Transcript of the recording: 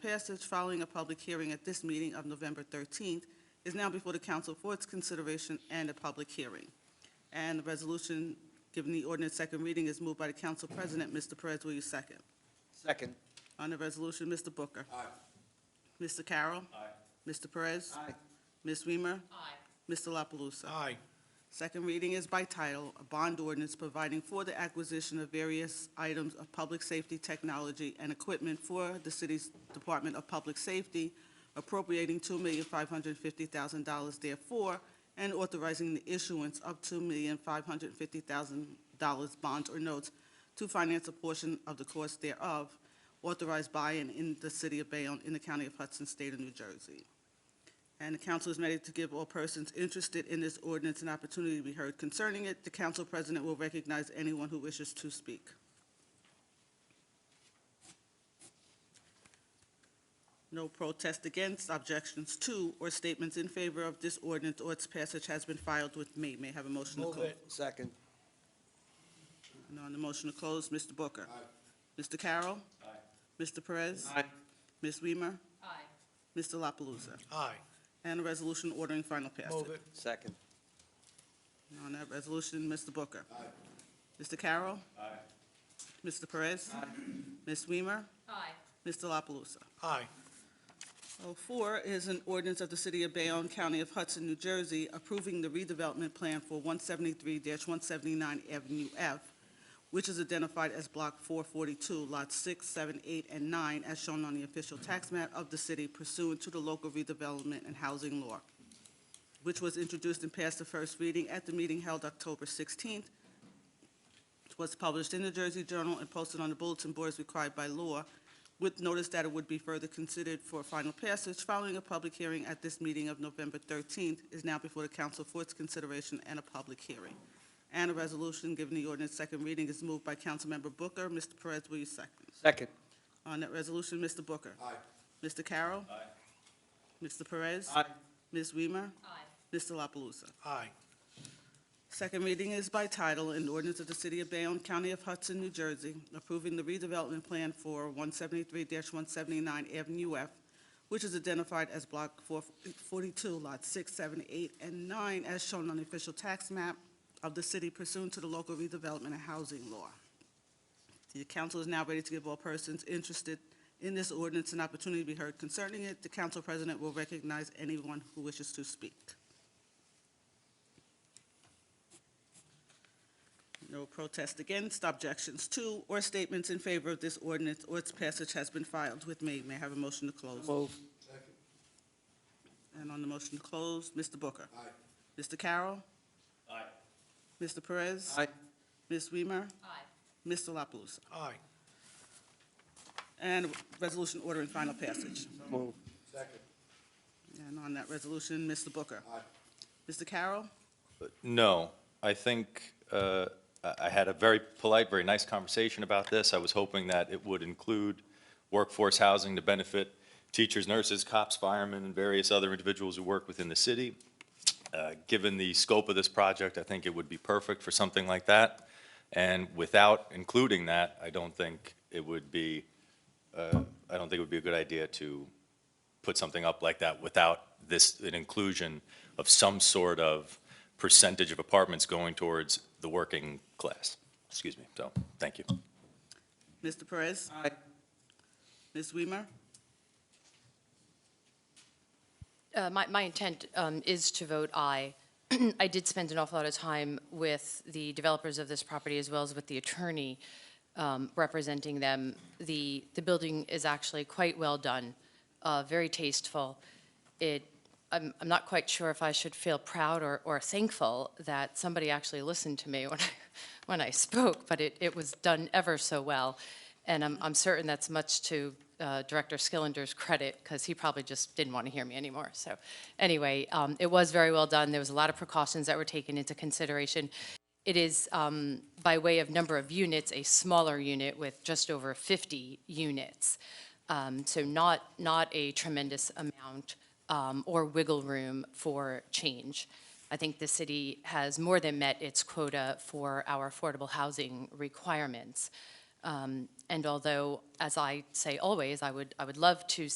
passage following a public hearing at this meeting of November 13th, is now before the council for its consideration and a public hearing. And the resolution, given the ordinance second reading, is moved by the council president. Mr. Perez, will you second? Second. On the resolution, Mr. Booker. Aye. Mr. Carroll. Mr. Perez. Aye. Ms. Weimer. Aye. Mr. La Palusa? Aye. Second reading is by title, a bond ordinance providing for the acquisition of various items of public safety technology and equipment for the city's Department of Public Safety, appropriating $2,550,000 therefore, and authorizing the issuance of $2,550,000 bonds or notes to finance a portion of the cost thereof, authorized by and in the city of Bayonne, in the county of Hudson, state of New Jersey. And the council is ready to give all persons interested in this ordinance an opportunity to be heard concerning it. The council president will recognize anyone who wishes to speak. No protest against, objections to, or statements in favor of this ordinance or its passage has been filed with me. May I have a motion to Move close? it. Second. And on the motion to close, Mr. Booker. Mr. Carroll. Mr. Perez. Aye. Ms. Weimer. Aye. Mr. La Palusa. Aye. And a resolution ordering final passage. Move it. Second. On that resolution, Mr. Booker. Mr. Carroll. Mr. Perez. Ms. Weimer. Aye. Mr. La Palusa. Aye. Oh, Four is an ordinance of the City of Bayonne, County of Hudson, New Jersey, approving the redevelopment plan for 173-179 Avenue F, which is identified as Block 442, Lots 6, 7, 8, and 9, as shown on the official tax map of the city pursuant to the local redevelopment and housing law, which was introduced and passed the first reading at the meeting held October 16th, was published in the Jersey Journal and posted on the bulletin boards required by law, with notice that it would be further considered for final passage following a public hearing at this meeting of November 13th, is now before the council for its consideration and a public hearing. And a resolution giving the ordinance second reading is moved by Councilmember Booker. Mr. Perez, will you second? Second. On that resolution, Mr. Booker. Aye. Mr. Carroll. Mr. Perez. Aye. Ms. Weimer. Aye. Mr. La Palusa. Aye. Second reading is by title, an ordinance of the City of Bayonne, County of Hudson, New Jersey, approving the redevelopment plan for 173-179 Avenue F, which is identified as Block 442, Lots 6, 7, 8, and 9, as shown on the official tax map of the city pursuant to the local redevelopment and housing law. The council is now ready to give all persons interested in this ordinance an opportunity to be heard concerning it. The council president will recognize anyone who wishes to speak. No protest against, objections to, or statements in favor of this ordinance or its passage has been filed with me. May I have a motion to close? Move. And on the motion to close, Mr. Booker. Aye. Mr. Carroll. Aye. Mr. Perez. Aye. Ms. Weimer. Aye. Mr. La Palusa. Aye. And resolution ordering final passage. Move. And on that resolution, Mr. Booker. Aye. Mr. Carroll. No, I think uh, I I had a very polite, very nice conversation about this. I was hoping that it would include workforce housing to benefit teachers, nurses, cops, firemen, and various other individuals who work within the city. Uh, Given the scope of this project, I think it would be perfect for something like that. And without including that, I don't think it would be, uh, I don't think it would be a good idea to put something up like that without this, an inclusion of some sort of percentage of apartments going towards the working class. Excuse me, so, thank you. Mr. Perez. Aye. Ms. Weimer. Uh, My, my intent um, is to vote aye. I did spend an awful lot of time with the developers of this property as well as with the attorney um, representing them. The, the building is actually quite well done, uh, very tasteful. It, I'm, I'm not quite sure if I should feel proud or, or thankful that somebody actually listened to me when I, when I spoke, but it, it was done ever so well. And I'm, I'm certain that's much to uh, Director Skillender's credit, because he probably just didn't want to hear me anymore. So anyway, um, it was very well done. There was a lot of precautions that were taken into consideration. It is, um, by way of number of units, a smaller unit with just over 50 units. Um, So not, not a tremendous amount um, or wiggle room for change. I think the city has more than met its quota for our affordable housing requirements. Um, And although, as I say always, I would, I would love to